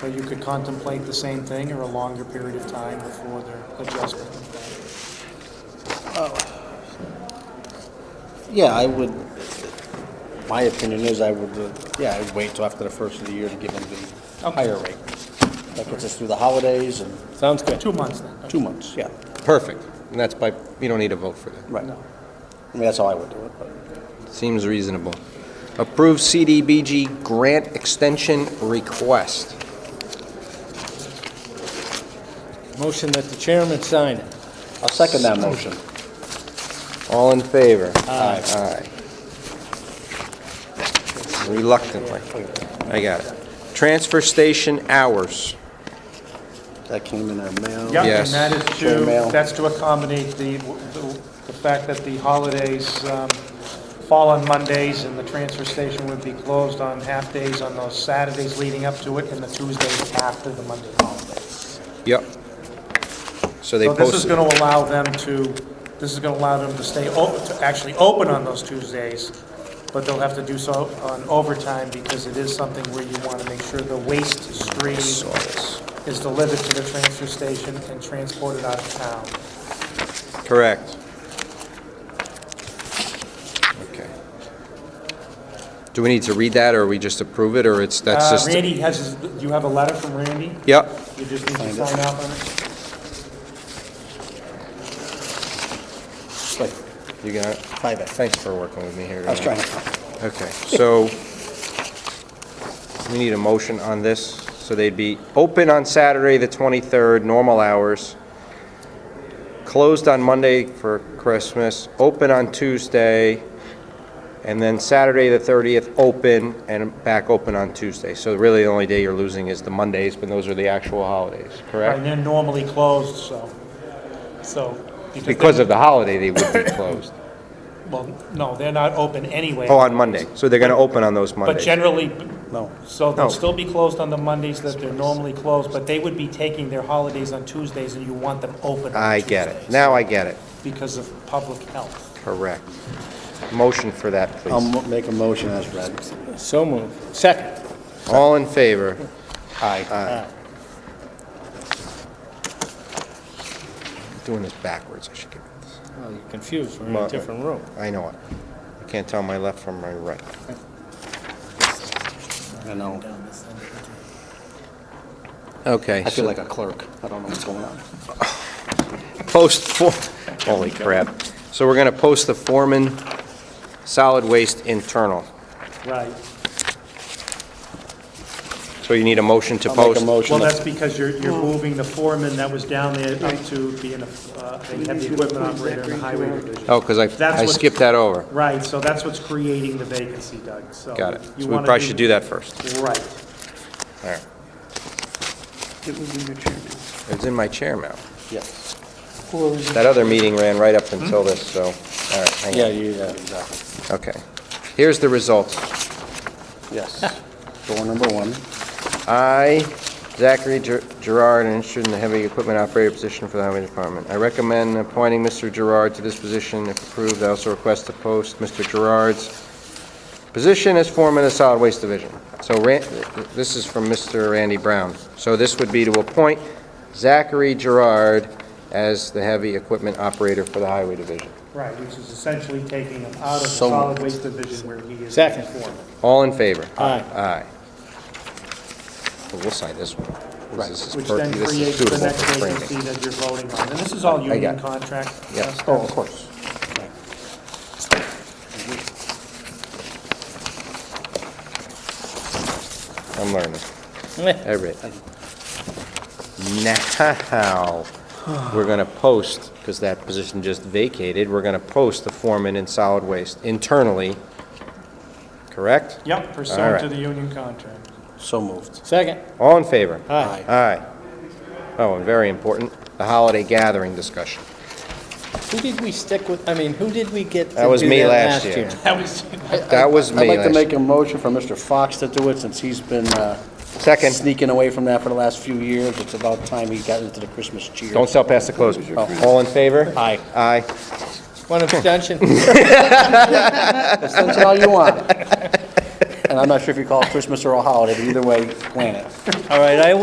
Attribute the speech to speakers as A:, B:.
A: So you could contemplate the same thing or a longer period of time before the adjustment?
B: Yeah, I would, my opinion is I would, uh, yeah, I'd wait till after the first of the year to give them the higher rate. That gets us through the holidays and
C: Sounds good.
A: Two months then?
B: two months, yeah,
D: Perfect. And that's by, you don't need a vote for that.
B: right. I mean, that's how I would do it, but.
D: Seems reasonable. Approve CDBG grant extension request.
C: Motion that the chairman sign it.
B: I'll second that motion.
D: All in favor?
B: Aye.
D: Aye. Reluctantly. I got it. Transfer station hours.
B: That came in our mail.
A: Yep,
D: Yes.
A: and that is
B: Chair
A: to,
B: mail.
A: that's to accommodate the, the the fact that the holidays um, fall on Mondays and the transfer station would be closed on half-days on those Saturdays leading up to it and the Tuesdays after the Monday holiday.
D: Yep. So they
A: So this is
D: posted,
A: going to allow them to, this is going to allow them to stay, o- to actually open on those Tuesdays, but they'll have to do so on overtime because it is something where you want to make sure the waste stream is delivered to the transfer station and transported out of town.
D: correct. Okay. Do we need to read that, or we just approve it, or it's, that's
A: Uh,
D: just?
A: Randy has, his- you have a letter from Randy?
D: Yep.
A: You just need to
B: Find it.
A: sign off on it?
B: Like,
D: You got it?
B: Five A.
D: Thanks for working with me here.
B: I was
D: tonight.
B: trying to,
D: Okay, so we need a motion on this. So they'd be open on Saturday, the 23rd, normal hours, closed on Monday for Christmas, open on Tuesday, and then Saturday, the 30th, open, and back open on Tuesday. So really, the only day you're losing is the Mondays, but those are the actual holidays,
A: And
D: correct?
A: they're normally closed, so, so. they-
D: Because of the holiday, they would be closed.
A: Well, no, they're not open anyway.
D: Oh, on Monday. So they're going to open on those
A: But
D: Mondays.
A: generally,
B: no,
A: so
D: No.
A: they'll still be closed on the Mondays that they're normally closed, but they would be taking their holidays on Tuesdays, and you want them open on
D: I get it.
A: Tuesdays
D: Now I get it.
A: Because of public health.
D: Correct. Motion for that,
B: I'll
D: please.
B: mo- make a motion as read.
C: So moved. Second.
D: All in favor?
B: Aye.
D: Doing this backwards, I should get this.
C: Well, you're confused. We're in
D: Well,
C: a different room.
D: I know it. I can't tell my left from my right.
B: I know,
D: Okay.
B: I feel like a clerk, I don't know what's going on.
D: Post for, holy crap. So we're going to post the foreman, solid waste internal.
A: Right.
D: So you need a motion to
B: I'll make
D: post?
B: a
A: Well,
B: motion.
A: that's because you're, you're moving the foreman that was down there up to being, a- uh, they have the equipment operator and the highway division.
D: Oh, because I,
A: That's
D: I
A: what-
D: skipped that over.
A: Right, so that's what's creating the vacancy, Doug, so.
D: Got it.
A: Oh, you
D: So we
A: wanna
D: probably should do that first.
A: Right.
D: All right.
E: It was in your chairman.
D: It's in my chair now.
B: Yes.
E: Or was it-
D: That other meeting ran right up until this, so, all right, hang on.
B: Yeah, you-
C: uh,
B: yeah, exactly,
D: Okay. Here's the results.
B: yes. Door number one,
D: I, Zachary Ger- Gerard, am interested in the heavy equipment operator position for the Highway Department. I recommend appointing Mr. Gerard to this position. If approved, I also request to post Mr. Gerard's position as foreman of the Solid Waste Division. So Ran- this is from Mr. Randy Brown. So this would be to appoint Zachary Gerard as the heavy equipment operator for the Highway Division.
A: Right, which is essentially taking him out of the
B: So
A: solid waste division where he is.
C: Second.
A: foreman.
D: All in favor?
C: Aye.
D: Aye. Well, We'll sign this one. 'cause
B: Right.
D: This is
A: Which
D: per-
A: then
D: this is
A: creates the
D: suitable
A: next
D: for framing.
A: vacancy that you're voting on. And this is all union
D: got it.
A: contract.
D: Yep.
A: uh, stuff.
B: oh, of course.
D: I'm learning.
C: Eh,
D: Everything. Now, we're going to post, because that position just vacated, we're going to post the foreman in solid waste internally, correct?
A: Yep,
D: All right.
A: pursuant to the union contract.
B: So moved.
C: Second.
D: All in favor?
C: Aye.
D: Aye. Oh, and very important, the holiday gathering discussion.
C: Who did we stick with? I mean, who did we get to
D: That was
C: do
D: me
C: that
D: last year.
A: That was,
D: That was me
B: I'd like to
D: last-
B: make a motion for Mr. Fox to do it, since he's been uh,
D: Second,
B: sneaking away from that for the last few years. It's about time he got into the Christmas cheer.
D: don't sell past the close. All in favor?
B: Oh. Aye.
D: Aye.
C: One abstention.
B: Send it all you want. And I'm not sure if you call it Christmas or a holiday, but either way, plan it.
C: All right, I